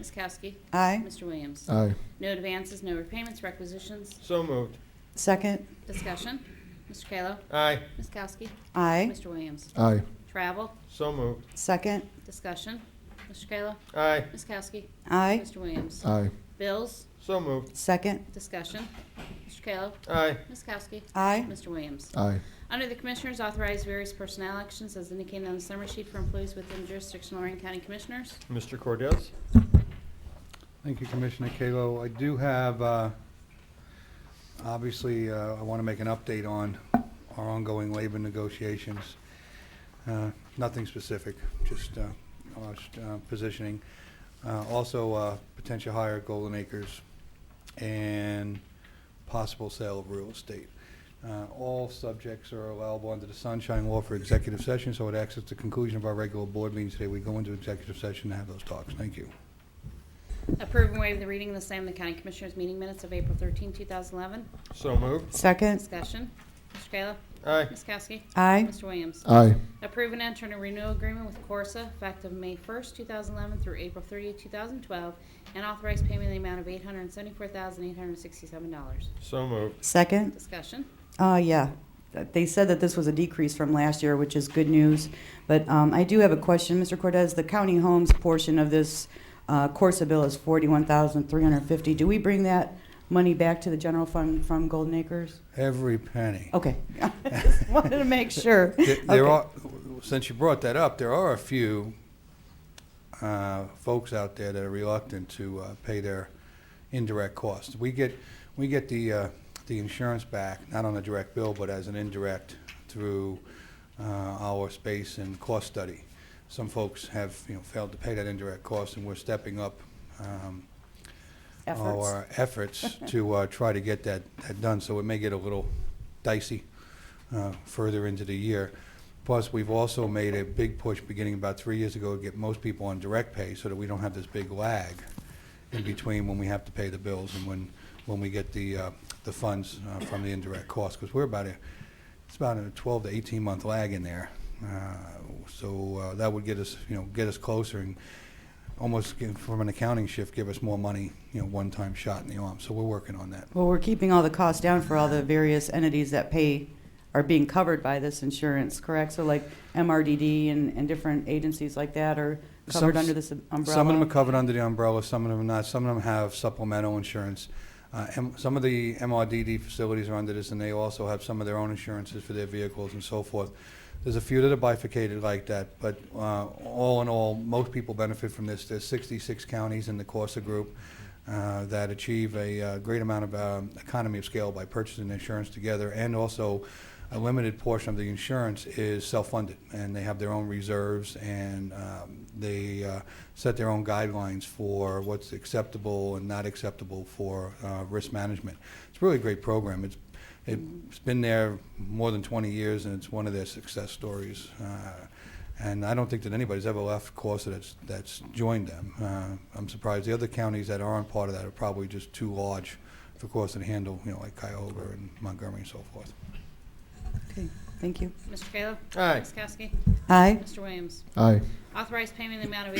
Ms. Kowski. Aye. Mr. Williams. Aye. No advances, no repayments, requisitions. So moved. Second. Discussion. Mr. Kayla. Aye. Ms. Kowski. Aye. Mr. Williams. Aye. Travel. So moved. Second. Discussion. Mr. Kayla. Aye. Ms. Kowski. Aye. Mr. Williams. Aye. Bills. So moved. Second. Discussion. Mr. Kayla. Aye. Ms. Kowski. Aye. Mr. Williams. Aye. Under the Commissioners, authorize various personnel actions as indicated on the summary sheet for employees within jurisdiction of Lorraine County Commissioners. Mr. Cordez? Thank you, Commissioner Kalo. I do have, uh, obviously, uh, I want to make an update on our ongoing labor negotiations. Uh, Nothing specific, just uh, our, uh, positioning. Uh, Also, uh, potential hire at Golden Acres and possible sale of real estate. Uh, All subjects are allowable under the Sunshine Law for executive session, so it acts as the conclusion of our regular board meeting today. We go into executive session and have those talks. Thank you. Approve and waive the reading of the same in the County Commissioners' meeting minutes of April 13, 2011. So moved. Second. Discussion. Mr. Kayla. Aye. Ms. Kowski. Aye. Mr. Williams. Aye. Approve and enter a renewal agreement with Corsa effective May 1st, 2011 through April 30th, 2012, and authorize payment in the amount of $874,867. So moved. Second. Discussion. Uh, yeah. They said that this was a decrease from last year, which is good news. But um, I do have a question, Mr. Cortez. The county homes portion of this uh, Corsa bill is forty-one thousand three hundred fifty. Do we bring that money back to the general fund from Golden Acres? Every penny. Okay, Just wanted to make sure. There- There Okay. are, since you brought that up, there are a few uh, folks out there that are reluctant to uh, pay their indirect costs. We get, we get the, uh, the insurance back, not on a direct bill, but as an indirect through uh, our space and cost study. Some folks have, you know, failed to pay that indirect cost, and we're stepping up um, Efforts. our efforts to uh, try to get that, that done, so it may get a little dicey uh, further into the year. Plus, we've also made a big push beginning about three years ago to get most people on direct pay so that we don't have this big lag in between when we have to pay the bills and when, when we get the, uh, the funds uh, from the indirect costs, because we're about a, it's about a 12 to 18 month lag in there. Uh, So uh, that would get us, you know, get us closer and almost give- from an accounting shift, give us more money, you know, one-time shot in the arm. So we're working on that. Well, we're keeping all the costs down for all the various entities that pay, are being covered by this insurance, correct? So like MRDD and, and different agencies like that are covered Some- under this umbrella? Some of them are covered under the umbrella, some of them are not. Some of them have supplemental insurance. Uh, M- Some of the MRDD facilities are under this, and they also have some of their own insurances for their vehicles and so forth. There's a few that are bifurcated like that, but uh, all in all, most people benefit from this. There's 66 counties in the Corsa Group uh, that achieve a uh, great amount of um, economy of scale by purchasing insurance together, and also a limited portion of the insurance is self-funded, and they have their own reserves, and um, they uh, set their own guidelines for what's acceptable and not acceptable for uh, risk management. It's really a great program. It's It's been there more than 20 years, and it's one of their success stories. Uh, And I don't think that anybody's ever left Corsa that's, that's joined them. Uh, I'm surprised. The other counties that aren't part of that are probably just too large for Corsa to handle, you know, like Cuyahoga and Montgomery and so forth. Okay, Thank you. Mr. Kayla. Aye. Ms. Kowski. Aye. Mr. Williams. Aye. Authorize payment in the amount of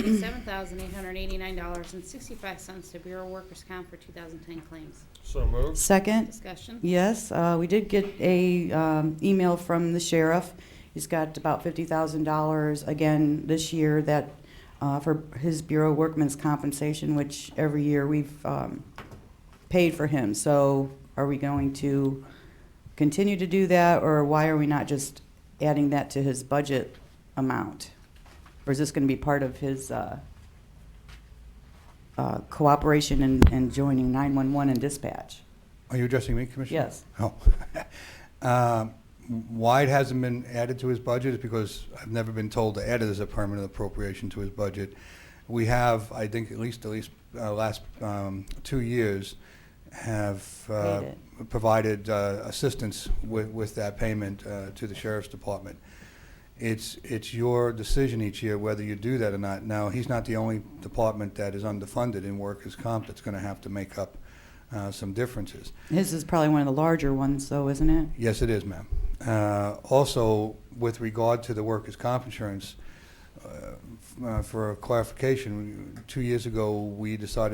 $87,889.65 to Bureau Workers' Comp for 2010 claims. So moved. Second? Discussion. Yes, uh, we did get a, um, email from the sheriff. He's got about fifty thousand dollars again this year that, uh, for his Bureau of Workmen's Compensation, which every year we've, um, paid for him. So are we going to continue to do that, or why are we not just adding that to his budget amount? Or is this gonna be part of his, uh, uh, cooperation and, and joining nine-one-one and dispatch? Are you addressing me, Commissioner? Yes. Oh. Um, Why it hasn't been added to his budget is because I've never been told to add it as a permanent appropriation to his budget. We have, I think, at least, at least, uh, last um, two years, have uh, Paid it. provided uh, assistance with, with that payment uh, to the sheriff's department. It's, it's your decision each year whether you do that or not. Now, he's not the only department that is underfunded in workers' comp that's going to have to make up uh, some differences. His is probably one of the larger ones, though, isn't it? Yes, it is, ma'am. Uh, Also, with regard to the workers' comp insurance, uh, f- uh, for clarification, two years ago, we decided